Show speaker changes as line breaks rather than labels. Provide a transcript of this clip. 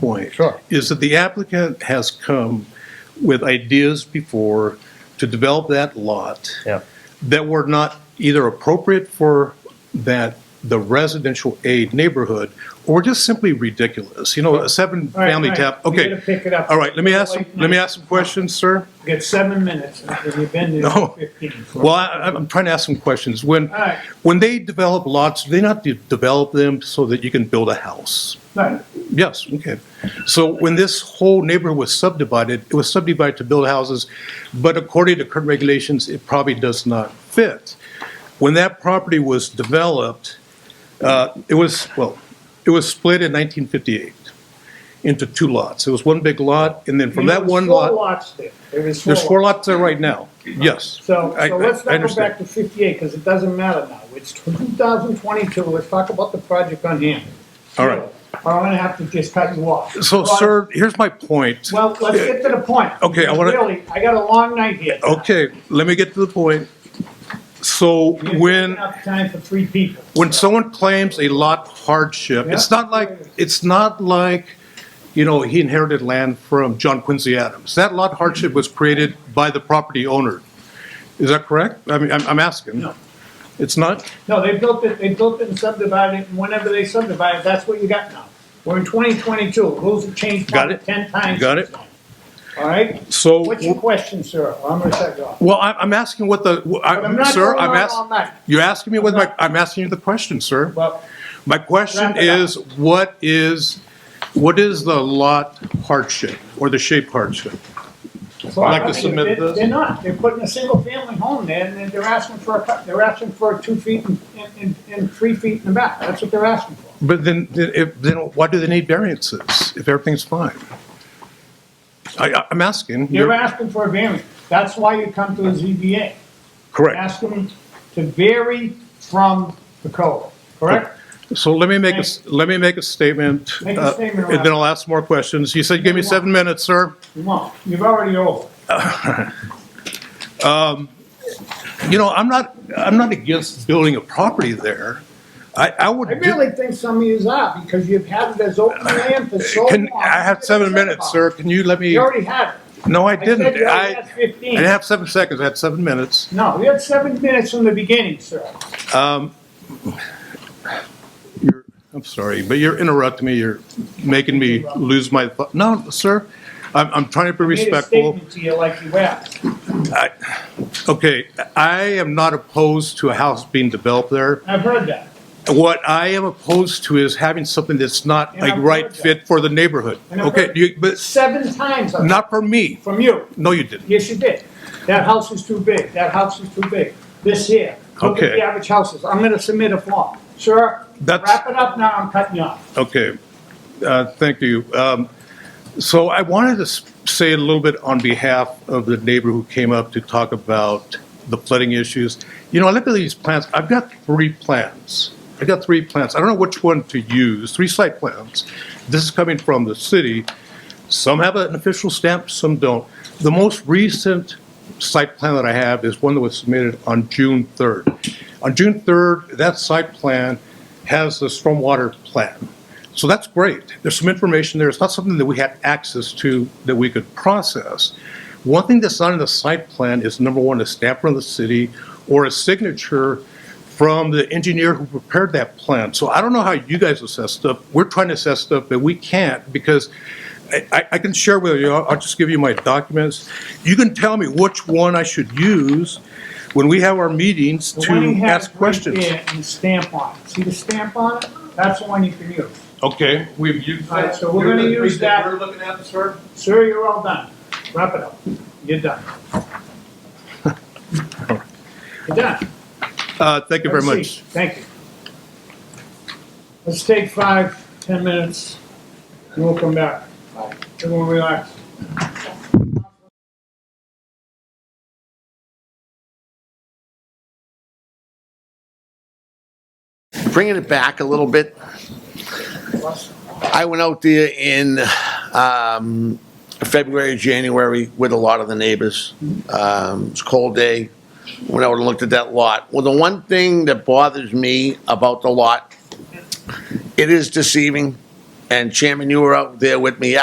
point.
Sure.
Is that the applicant has come with ideas before to develop that lot
Yeah.
that were not either appropriate for that, the residential aid neighborhood, or just simply ridiculous. You know, a
All right,
seven-family
all right.
tap,
You
okay.
gotta pick it up.
All right, let me ask, some-
Wait,
let me ask some questions, sir.
You got seven minutes, and you've been there
No.
for fifteen.
Well, I, I'm trying to ask some questions. When,
All right.
when they develop lots, do they not de- develop them so that you can build a house?
Right.
Yes, okay. So when this whole neighborhood was subdivided, it was subdivided to build houses, but according to current regulations, it probably does not fit. When that property was developed, uh, it was, well, it was split in 1958 into two lots. It was one big lot, and then from
There
that
was
one
Four
lot,
lots there, there is four.
there's four
lots.
lots there right now, yes.
So,
I-
so
I-
let's
I
not go
understand.
back to fifty-eight, because it doesn't matter now, it's two thousand twenty-two, let's talk about the project on hand.
All right.
Or I'm gonna have to just cut you off.
So,
Well,
sir, here's my point.
Well, let's get to the point.
Okay, I wanna-
Really, I got a long night here. tonight.
Okay, let me get to the point. So
You're taking
when.
up time for three people.
when someone claims a lot hardship, it's
Yeah.
not like, it's not like, you know, he inherited land from John Quincy Adams. That lot hardship was created by the property owner. Is that correct? I mean, I'm, I'm asking.
No.
It's not?
No, they built it, they built it and subdivided it, and whenever they subdivide it, that's what you got now. We're in twenty twenty-two, rules have changed
Got
probably
it.
ten times.
Got it.
All right,
So,
what's your question, sir? I'm gonna shut you off.
well, I'm, I'm asking what the,
But I'm
I,
not
sir,
going
I'm
on all
asking,
night.
you're asking me with my, I'm asking you the question, sir.
Well,
My question
Wrap it up.
is, what is, what is the lot hardship or the shape hardship?
so
I'd like to
I think
submit
they're-
this.
They're not, they're putting a single-family home there, and they're- they're asking for a, cou- they're asking for two feet and, and- and, and three feet in the back, that's what they're asking for.
But then, then if, then why do they need variances if everything's fine? I, I- I'm asking.
You're asking for a variance, that's why you come to a ZBA.
Correct.
Ask them to vary from the code, correct?
So let me make a, s- let me make a statement.
Make a
uh,
statement,
And then I'll ask more questions. You said you gave me seven minutes, sir.
You won't, you've already over.
You know, I'm not, I'm not against building a property there. I, I would.
I
do-
really think some of yous are, because you've had it as open land for so long.
Uh, Can, I have seven minutes, sir. Can you let me?
You already had it.
No, I
I said
didn't.
you already
I,
had
I
fifteen.
didn't have seven seconds. I had seven minutes.
No, we had seven minutes from the beginning, sir.
You're, I'm sorry, but you're interrupting me. You're making me lose my, thought. no, sir. I'm, I'm trying to be
Made a
respectful.
statement to you like you asked.
Okay, I am not opposed to a house being developed there.
I've heard that.
What I am opposed to is having something that's not
And
a
I've
right
heard that.
fit for the neighborhood.
And I've
Okay,
heard-
you, but
Seven times I've
not for me.
from you.
No, you didn't.
Yes, you did. That house is too big, that house is too big. This here, look at
Okay.
the average houses. I'm gonna submit a form. Sir,
That's-
wrap it up now, I'm cutting you off.
Okay, uh, thank you. Um, So I wanted to s- say a little bit on behalf of the neighbor who came up to talk about the flooding issues. You know, I look at these plans, I've got three plans. I've got three plans. I don't know which one to use, three site plans. This is coming from the city. Some have an official stamp, some don't. The most recent site plan that I have is one that was submitted on June 3rd. On June 3rd, that site plan has the stormwater plan. So that's great. There's some information there. It's not something that we had access to that we could process. One thing that's not in the site plan is number one, a stamp from the city or a signature from the engineer who prepared that plan. So I don't know how you guys assess stuff. We're trying to assess stuff, but we can't because I- I, I can share with you, I'll I'll just give you my documents. You can tell me which one I should use when we have our meetings
The one he
to
has
ask
right
questions.
there And the stamp on it. See the stamp on it? That's the one you can use.
Okay, we've used
All right, so we're gonna use that.
We're looking at, sir?
Sir, you're all done. Wrap it up. You're done. You're done.
Uh, thank you very
Have a
much.
seat. Thank you. Let's take five, ten minutes, and we'll come back. Everyone relax.
bringing it back a little bit, I went out there in um, February, January with a lot of the neighbors. Um, It's a cold day. Went out and looked at that lot. Well, the one thing that bothers me about the lot, it is deceiving. And Chairman, you were out there with me